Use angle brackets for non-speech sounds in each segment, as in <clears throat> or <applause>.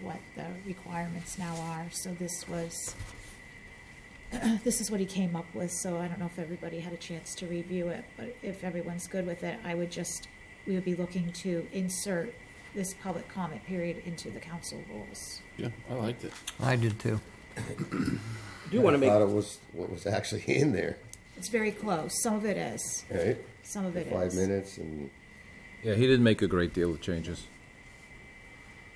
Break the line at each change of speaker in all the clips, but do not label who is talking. what the requirements now are, so this was, <clears throat> this is what he came up with, so I don't know if everybody had a chance to review it, but if everyone's good with it, I would just, we would be looking to insert this public comment period into the council rules.
Yeah, I liked it.
I did too.
I do want to
I thought
make,
it was what was actually in there,
It's very close, some of it is,
right?
some of it is.
Five minutes and
Yeah, he didn't make a great deal of changes.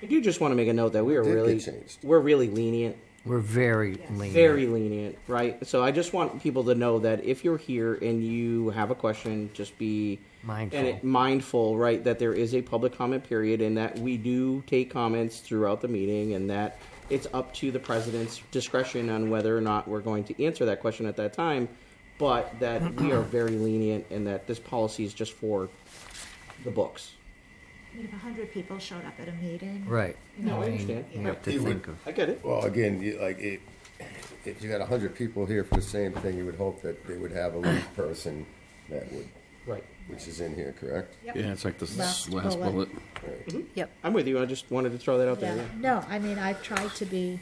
I do just want to make a note that we are
Did get
really,
changed.
we're really lenient,
We're very lean.
very lenient, right? So I just want people to know that if you're here and you have a question, just be
Mindful.
and it- mindful, right? That there is a public comment period and that we do take comments throughout the meeting and that it's up to the president's discretion on whether or not we're going to answer that question at that time. But that we are very lenient and that this policy is just for the books.
I mean, if a hundred people showed up at a meeting.
Right.
No, I
mean,
understand.
You have
He
to
would-
think of,
I get it.
Well, again, you, like it, if you got a hundred people here for the same thing, you would hope that they would have a lead person that would,
Right.
which is in here, correct?
Yeah, it's like the
Last
last, last
bullet.
bullet.
Yep.
I'm with you. I just wanted to throw that out there.
Yeah,
yeah.
no, I mean, I've tried to be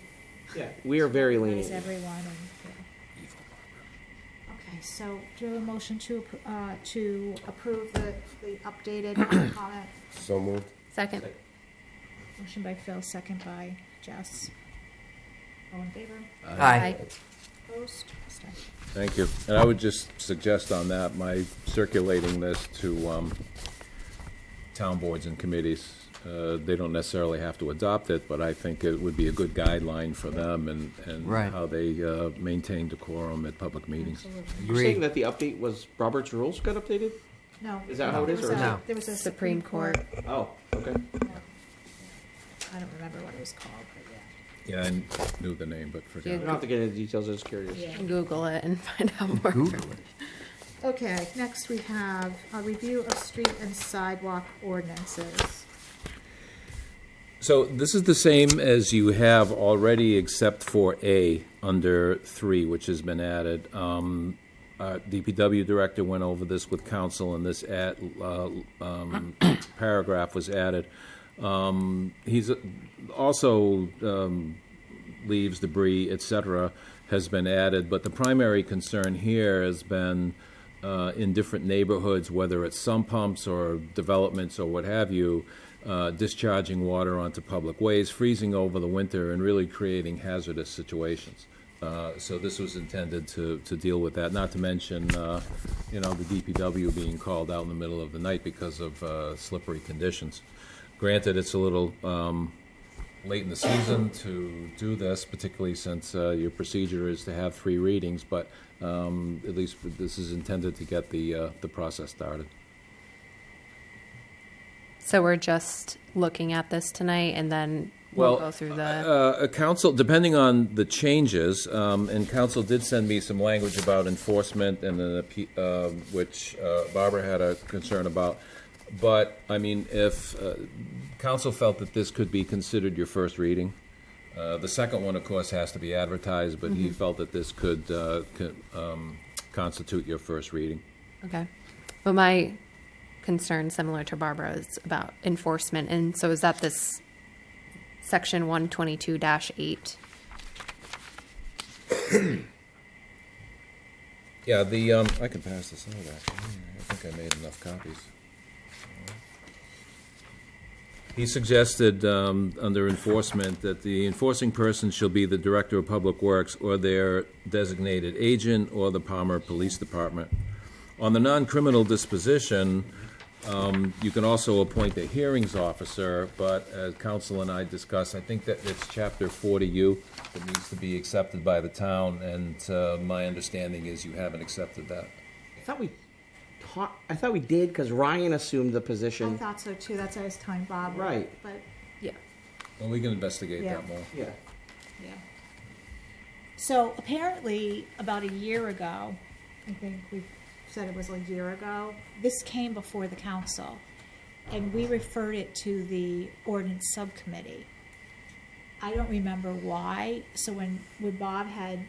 Yeah, we are very
Thanks,
lenient.
everyone, and, yeah. Okay, so do you have a motion to, appro- uh, to approve the, the updated <coughs> comment?
So moved.
Second.
Motion by Phil, second by Jess. All in favor?
aye.
Opposed? Abstentions?
Thank you. And I would just suggest on that, my circulating this to um, town boards and committees. Uh, They don't necessarily have to adopt it, but I think it would be a good guideline for them and, and
Right.
how they uh, maintain decorum at public meetings.
You're saying
Agreed.
that the update was Robert's rules got updated?
No.
Is that how it
There
is,
was
or-
a-
No.
There was a
Supreme
Supreme Court,
Oh, okay.
I don't remember what it was called, but yeah.
Yeah, I knew the name, but
I
forgot.
don't have to get into details. I was curious.
Google it and <laughs> find out more.
Google it.
Okay, next we have a review of street and sidewalk ordinances.
So this is the same as you have already, except for A under three, which has been added. Um, uh, DPW director went over this with council, and this at, uh, um, <coughs> paragraph was added. Um, he's uh, also um, leaves, debris, et cetera, has been added, but the primary concern here has been uh, in different neighborhoods, whether it's sump pumps or developments or what have you, uh, discharging water onto public ways, freezing over the winter, and really creating hazardous situations. Uh, So this was intended to, to deal with that, not to mention, uh, you know, the DPW being called out in the middle of the night because of uh, slippery conditions. Granted, it's a little um, late in the season to do this, particularly since uh, your procedure is to have three readings, but um, at least this is intended to get the, uh, the process started.
So we're just looking at this tonight and then we'll go through the,
uh, uh, council, depending on the changes, um, and council did send me some language about enforcement and then, appe- uh, which uh, Barbara had a concern about. But, I mean, if uh, council felt that this could be considered your first reading, uh, the second one, of course, has to be advertised, but
Mm-hmm.
he felt that this could uh, co- um, constitute your first reading.
okay. But my concern, similar to Barbara, is about enforcement. And so is that this section one twenty-two dash eight?
Yeah, the, um, I can pass this out, actually. I think I made enough copies. He suggested, um, under enforcement, that the enforcing person shall be the Director of Public Works or their designated agent or the Palmer Police Department. On the non-criminal disposition, um, you can also appoint a hearings officer, but as council and I discussed, I think that it's chapter 40U that needs to be accepted by the town, and uh, my understanding is you haven't accepted that.
I thought we taught, I thought we did because Ryan assumed the
I
position.
thought so too, that's why I was telling Bob.
Right.
But,
Yeah.
Well, we can investigate
Yeah.
that more.
Yeah.
yeah. So apparently, about a year ago, I think we said it was a year ago, this came before the council. And we referred it to the ordinance subcommittee. I don't remember why, so when, when Bob had,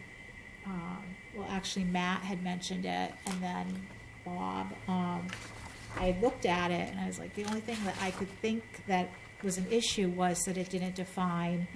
um, well, actually Matt had mentioned it, and then Bob, um, I looked at it and I was like, the only thing that I could think that was an issue was that it didn't define